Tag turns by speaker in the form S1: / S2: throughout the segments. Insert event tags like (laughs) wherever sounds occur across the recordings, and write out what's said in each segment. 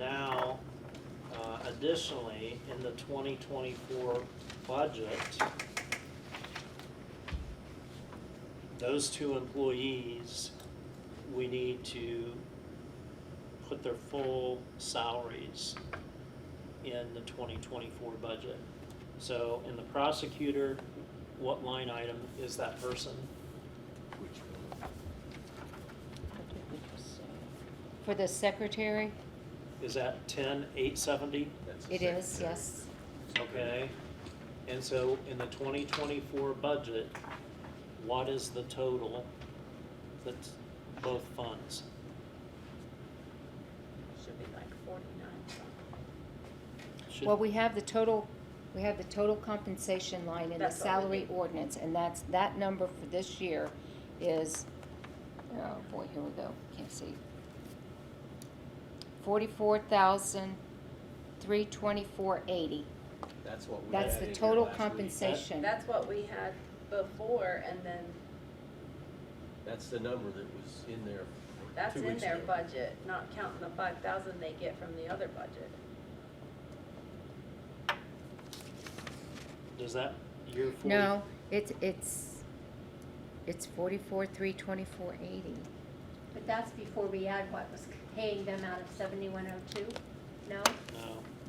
S1: uh, Additionally, in the 2024 budget, those two employees, we need to put their full salaries in the 2024 budget. So in the prosecutor, what line item is that person?
S2: For the secretary,
S1: Is that 10,870?
S2: it is, yes.
S1: Okay, and so in the twenty twenty-four budget, what is the total that's both funds?
S3: Should be like forty-nine something.
S1: Should-
S2: Well, we have the total, we have the total compensation line in the
S3: That's all we
S2: salary
S3: need.
S2: ordinance, and that's, that number for this year is, oh boy, here we go, can't see. Forty-four thousand, three twenty-four eighty.
S4: That's what we.
S2: That's
S4: had
S2: the
S4: in here
S2: total
S4: last week.
S2: compensation.
S3: That's what we had before and then
S4: That's the number that was in there.
S3: that's
S4: two
S3: in
S4: weeks
S3: their
S4: ago.
S3: budget, not counting the five thousand they get from the other budget.
S1: Does that year forty?
S2: No, it's, it's, it's forty-four, three twenty-four eighty.
S5: But that's before we add what was paying them out of seventy-one oh two, no?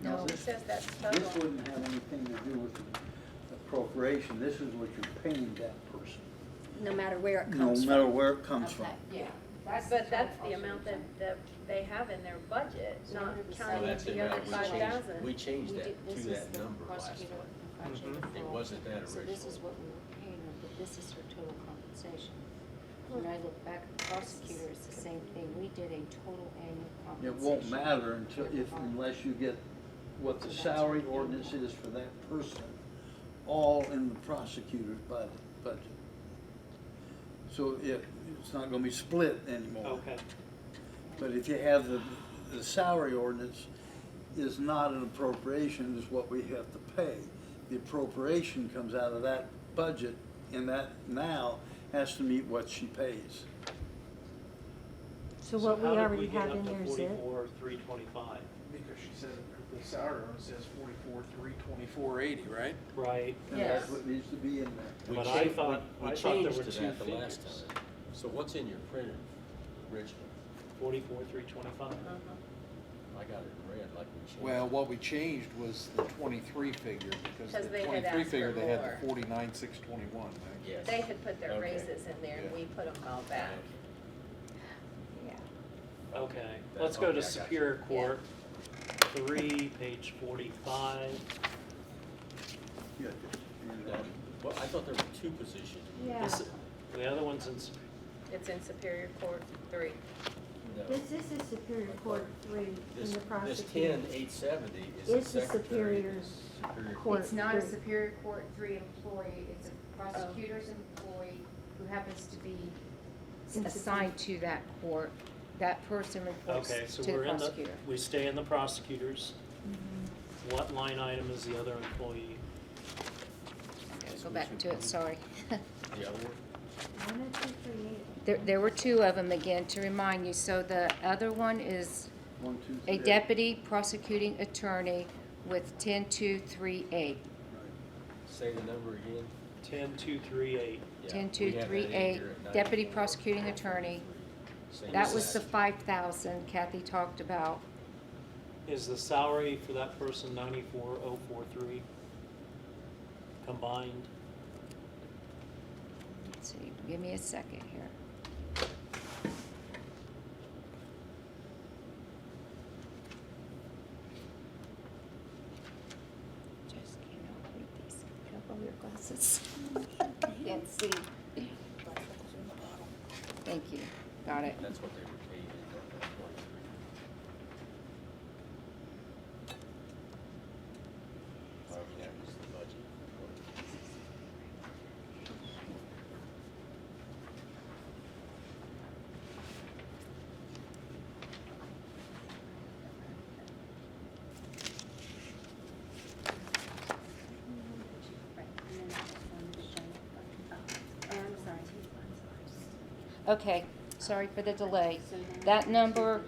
S1: No,
S2: No,
S3: It says that's
S6: This
S3: total.
S6: wouldn't have anything to do with appropriation, this is what you're paying that person,
S5: No matter where it
S6: no
S5: comes from.
S6: matter where it comes from.
S5: Okay, yeah.
S3: But that's the amount that, that they have in their budget,
S7: So
S3: not
S7: under the
S4: So
S3: counting
S4: Oh, that's
S7: salary,
S3: the other
S4: amount we
S3: five
S4: changed, we
S3: thousand.
S4: changed
S7: We did-
S4: that to
S7: this is
S4: that
S7: the
S4: number last
S7: prosecutor
S4: time.
S7: and prosecutor
S1: Mhm.
S4: It
S7: full.
S4: wasn't that
S7: So this is
S4: originally.
S7: what we were paying her, but this is her total compensation. When I look back at the prosecutor, it's the same thing, we did a total annual
S6: It
S7: compensation.
S6: won't matter until, if,
S7: for her.
S6: unless you get what the salary ordinance is for that person, all in the prosecutor's budget, budget. So it, it's not gonna be split anymore.
S1: okay,
S6: But if you have the, the salary ordinance is not an appropriation, is what we have to pay. The appropriation comes out of that budget, and that now has to meet what she pays.
S8: So what we
S1: how did
S8: already
S1: get
S8: have
S1: up
S8: in
S1: to
S8: there is it?
S1: 44, 325?
S9: Because she says, the salary ordinance says forty-four, three, twenty-four, eighty, right?
S1: Right,
S6: And that's
S3: Yes.
S6: what needs to be in there.
S4: We
S1: But I
S4: changed- we-
S1: thought-
S4: we
S1: I thought there
S4: changed
S1: were
S4: to
S1: two
S4: that the last
S1: figures.
S4: time. So what's in your printer originally?
S1: forty-four, three twenty-five?
S3: Uh-huh.
S4: I got it in red like we changed.
S9: Well, what we changed was the twenty-three figure, because
S3: Because
S9: the
S3: they had
S9: twenty-three
S3: asked
S9: figure,
S3: for
S9: they had
S3: more.
S9: the forty-nine, six, twenty-one,
S4: Yes.
S3: They had put their
S4: Okay.
S3: raises in there and
S9: Yeah.
S3: we put them all back.
S4: Okay.
S1: Okay,
S4: That-
S1: let's go
S4: okay, I
S1: to
S4: got you.
S1: Superior Court, three, page forty-five.
S6: Yeah. uh,
S4: Now, Well, I thought there were two positions.
S5: Yeah,
S1: This- The other one's in, Sup-
S3: It's in Superior Court three.
S4: No.
S8: This is a Superior Court three in
S4: This,
S8: the
S4: this
S8: prosecutor.
S4: ten eight seventy is
S8: It's
S4: the
S8: the
S4: secretary.
S8: superior
S4: it's superior
S8: court.
S2: It's not a
S8: three.
S2: Superior Court three employee, it's a prosecutor's
S7: Oh.
S2: employee who happens to be assigned to that court. That person reports
S1: okay,
S2: to
S1: so
S2: the
S1: we're in the,
S2: prosecutor.
S1: we stay in the prosecutors. What line item is the other employee?
S2: I gotta Go back to it, sorry. (laughs)
S4: The other one?
S8: One of the three,
S2: There, there were two of them again, to remind you. So the other one is
S6: One, two, three.
S2: a deputy prosecuting attorney with ten-two-three-eight.
S4: Say the number again.
S1: Ten-two-three-eight.
S4: Yeah, we had that in
S2: Ten-two-three-eight,
S4: here at
S2: deputy
S4: 91.
S2: prosecuting attorney.
S4: Same
S2: That
S4: as
S2: was the
S4: last.
S2: five thousand Kathy talked about.
S1: Is the salary for that person ninety-four oh four three combined?
S2: Let's see, give me a second here. Just cannot read these. Put up all your glasses. (laughs) Can't see. Thank you, got it.
S4: That's what they were paid in that twenty-three. Well, that was the budget.
S7: Right, and then that one is shown, oh, oh, I'm sorry, I'm sorry.
S2: Okay, sorry for the delay.
S7: So now-
S2: That number